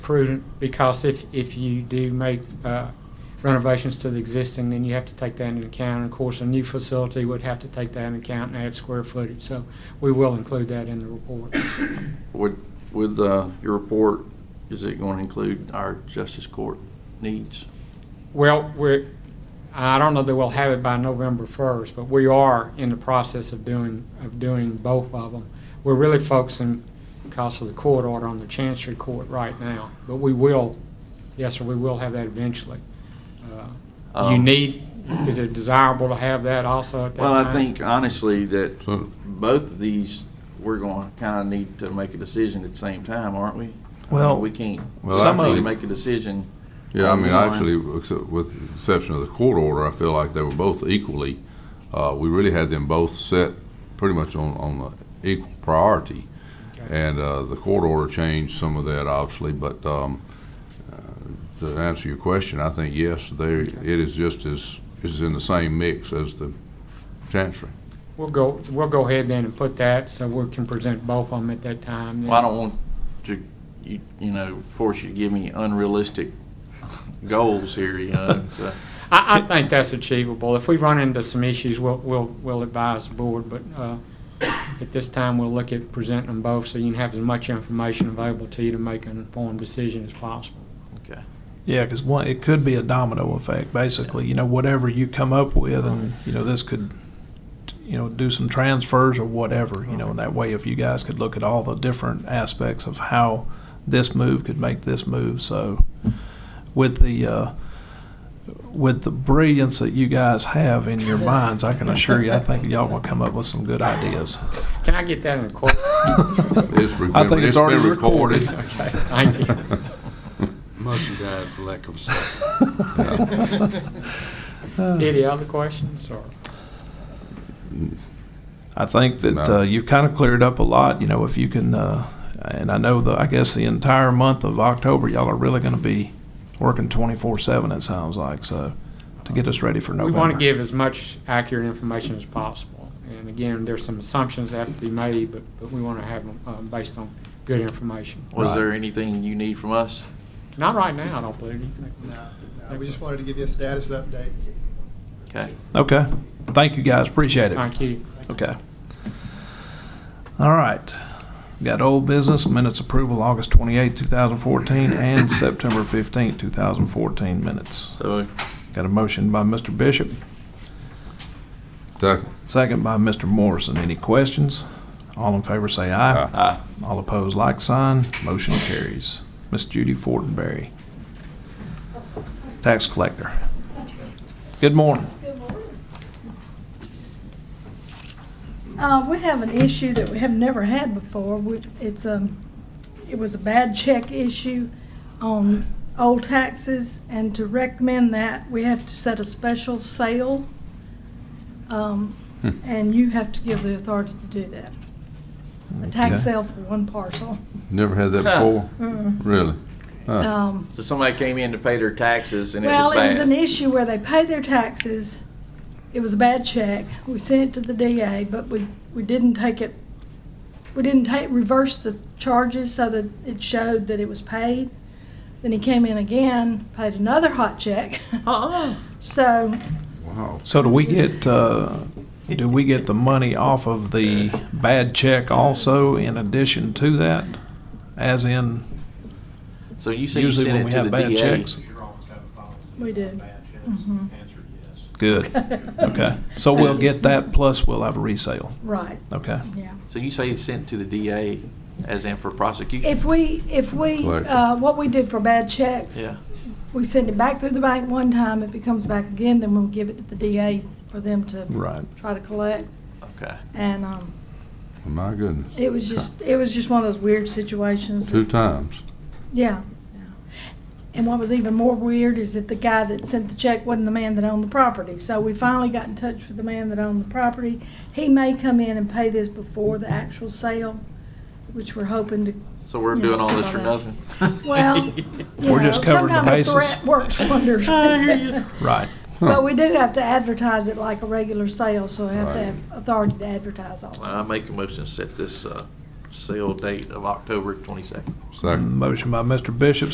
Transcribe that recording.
prudent because if, if you do make uh, renovations to the existing, then you have to take that into account. And of course, a new facility would have to take that into account and add square footage. So we will include that in the report. With, with uh, your report, is it going to include our justice court needs? Well, we're, I don't know that we'll have it by November 1st, but we are in the process of doing, of doing both of them. We're really focusing, because of the court order, on the Chancery Court right now, but we will, yes, sir, we will have that eventually. Uh, You Um, need, is it desirable to have that also at that time? Well, I think honestly that both of these, we're going to kind of need to make a decision at the same time, aren't we? Well, We can't, Well, some of actually- them make a decision. Yeah, I mean, online. actually, except with the exception of the court order, I feel like they were both equally, uh, we really had them both set pretty much on, on the equal priority. Okay. And, uh, the court order changed some of that obviously, but, um, uh, to answer your question, I think yes, they, it is just as, is in the same mix as the chancery. We'll go, we'll go ahead then and put that, so we can present both of them at that time. then. Well, I don't want to, you, you know, force you to give me unrealistic goals here, you know, so. I, I think that's achievable. If we run into some issues, we'll, we'll, we'll advise the board, but, uh, at this time, we'll look at presenting them both, so you can have as much information available to you to make an informed decision as possible. Okay. Yeah, because one, it could be a domino effect, basically. You know, whatever you come up with, and you know, this could, you know, do some transfers or whatever. You know, and that way, if you guys could look at all the different aspects of how this move could make this move, so with the uh, with the brilliance that you guys have in your minds, I can assure you, I think y'all will come up with some good ideas. Can I get that in a quote? It's, re- I think it's it's already been recorded. recorded. Okay, thank you. Motion died for lack of a second. Any other questions, or? I think that No. uh, you've kind of cleared up a lot. You know, if you can, uh, and I know the, I guess the entire month of October, y'all are really going to be working 24 7, it sounds like. So to get us ready for November. We want to give as much accurate information as possible. And again, there's some assumptions that have to be made, but, but we want to have them, uh, based on good information. Was Right. there anything you need from us? Not right now, I don't believe you. No, no, we just wanted to give you a status update. Okay. Okay. Thank you guys. Appreciate it. Thank you. Okay. All right. Got old business minutes approval August 28, 2014, and September 15, 2014 minutes. So Got a motion by Mr. Bishop. Second. Second by Mr. Morrison. Any questions? All in favor say aye. Aye. All opposed, like sign. Motion carries. Miss Judy Fortenberry, tax collector. Good morning. Uh, we have an issue that we have never had before, which it's, um, it was a bad check issue on old taxes, and to recommend that, we have to set a special sale. Um, and you have to give the authority to do that. A tax Okay. sale for one parcel. Never had that before? Mm. Really? Huh. Um, So somebody came in to pay their taxes and it was bad. Well, it was an issue where they paid their taxes. It was a bad check. We sent it to the DA, but we, we didn't take it, we didn't take, reverse the charges so that it showed that it was paid. Then he came in again, paid another hot check. Uh-uh. So, Wow. So do we get, uh, do we get the money off of the bad check also in addition to that? As in, So you say you usually when sent we it to have the bad DA? checks? we do. Mhm. Good. Okay. So we'll get that plus we'll have a resale. Right, Okay. yeah. So you say it's sent to the DA as in for prosecution? If we, if we, uh, Collection. what we did for bad checks. Yeah. We send it back through the bank one time. If it comes back again, then we'll give it to the DA for them to Right. try to collect. Okay. And um, My goodness. it was just, it was just one of those weird situations. Two times. Yeah. yeah. And what was even more weird is that the guy that sent the check wasn't the man that owned the property. So we finally got in touch with the man that owned the property. He may come in and pay this before the actual sale, which we're hoping to. So we're you know, doing all this for about nothing? Well, you We're just know, covering the sometimes a bases. threat Works wonders. Right. But we do have to advertise it like a regular sale, so we have to Right. have authority to advertise also. Well, I make a motion to set this uh, sale date of October 22nd. Second. Motion by Mr. Bishop,